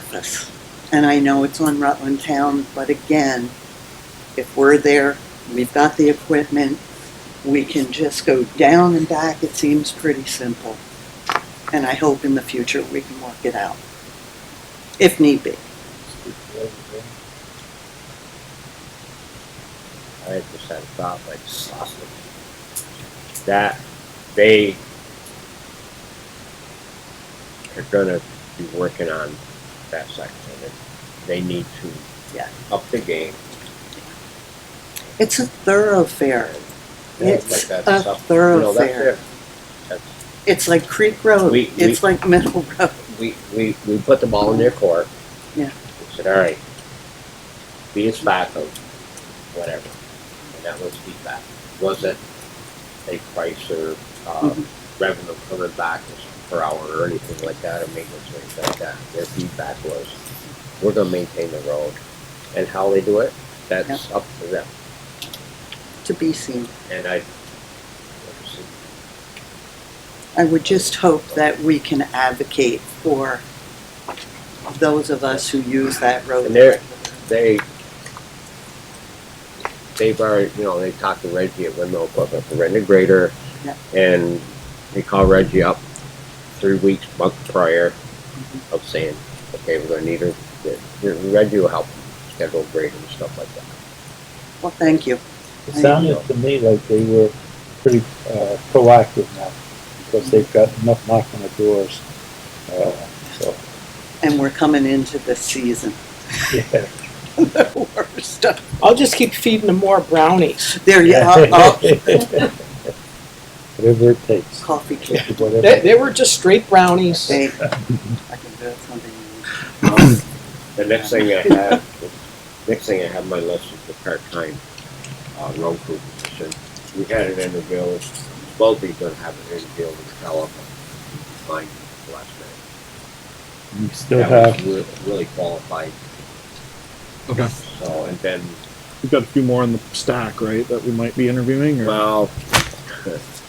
surface. And I know it's on Rutland Town, but again, if we're there, we've got the equipment, we can just go down and back. It seems pretty simple. And I hope in the future we can work it out, if need be. I just had a thought, but I just lost it. That, they are gonna be working on that section, and they need to Yeah. up the game. It's a thoroughfare. and It's like that a stuff. You know, that's thoroughfare. it. That's- It's like Creek Road. We- we- It's like Middle Road. We, we, we put the ball in their court. Yeah. We said, alright, be as back of whatever, and that was feedback. Was it a price or, uh, Mhm. revenue coming back per hour or anything like that, or maintenance or anything like that. Their feedback was, we're gonna maintain the road. And how they do it, that's up to them. to be seen. And I, I would just hope that we can advocate for those of us who use that road. and they're, they, they've already, you know, they talked to Reggie at Windmill Equipment, to rent a grader. Yeah. And they called Reggie up three weeks, month prior of saying, okay, we're gonna need her, Reggie will help schedule grading and stuff like that. Well, thank you. It sounded to me like they were pretty uh, proactive now because they've got enough knock on the doors. Uh, so, And we're coming into the season. yeah. the worst. I'll just keep feeding them more brownies. There you are. Oh, Whatever it takes. coffee cake. Whatever. They, they were just straight brownies. Hey, I can do something. The next thing I have, next thing I have my list is the part-time, uh, road crew position. We had an interview, supposed to be gonna have an interview with Calum, mine last night. you still That have. was re- Really qualified, Okay. so, and then, We've got a few more in the stack, right, that we might be interviewing? Or? well,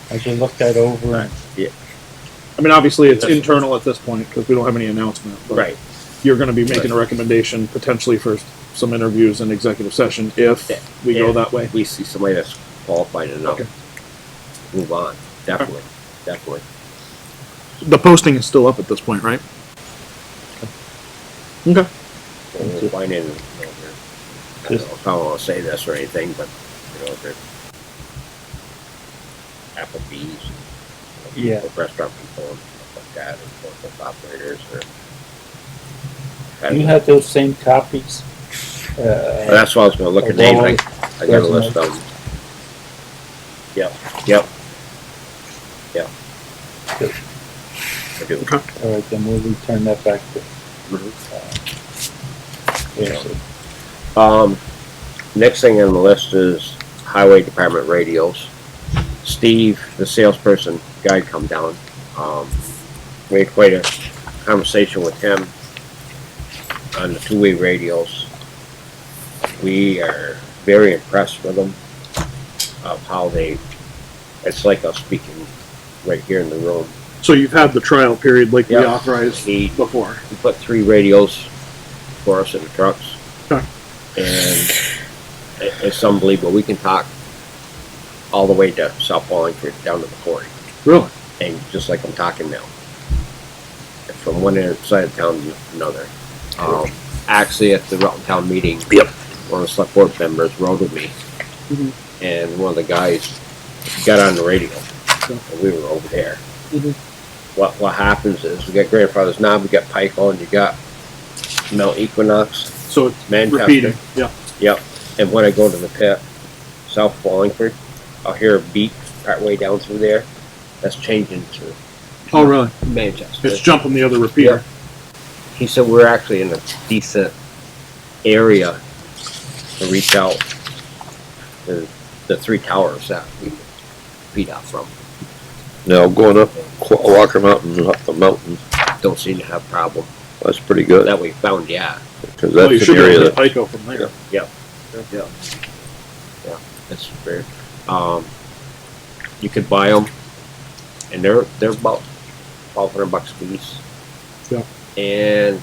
I should look that over. and I mean, obviously, it's That's- internal at this point because we don't have any announcement. but right, You're going to be making a recommendation potentially for some interviews in executive session if Yeah. we Yeah. go that way. if we see somebody that's qualified enough, Okay. move on, definitely, definitely. The posting is still up at this point, right? Okay. So we're finding, you know, they're- I don't know if I want to say this or anything, but, you know, they're Applebee's, you know, Yeah. restaurant people and stuff like that, and forklift operators or. I don't You know. have those same copies. Uh, That's why I was gonna look at Or names, Roland. I, I got a list of them. Yep, yep. Yep. Good. I do. All right, then we'll return that back to. uh, Mhm. Yeah. so Um, next thing on the list is highway department radios. Steve, the salesperson guy, come down. Um, we had quite a conversation with him on the two-way radios. We are very impressed with them of how they. It's like us speaking right here in the room. So you've had the trial period like we Yeah. authorized He before. he put three radios for us in the trucks. Huh. And it, it's unbelievable. We can talk all the way to South Wallingford down to the quarry. Really? And just like I'm talking now. From one end side of town to another. Um, actually at the Rutland Town meeting. Yep. One of the select board members rode with me. Mhm. And one of the guys got on the radio. And we were over there what what happens is we got grandfather's knob, we got Pico, and you got Mount Equinox, So it's Manchester. repeating. Yeah. Yep. And when I go to the pit, South Wallingford, I'll hear a beat partway down through there. That's changing to Oh, really? Manchester. It's jumping the other repeater. He said we're actually in a decent area to reach out to the three towers that we feed out from. Now going up Qu- Walker Mountain and up the mountain, Don't seem to have problem. that's pretty good That we found, yeah. because Well, you that's should an be able area to get that Pico from there. Yeah. Yeah, that's fair. Um, you could buy them, and they're they're about twelve hundred bucks a piece. Yeah. And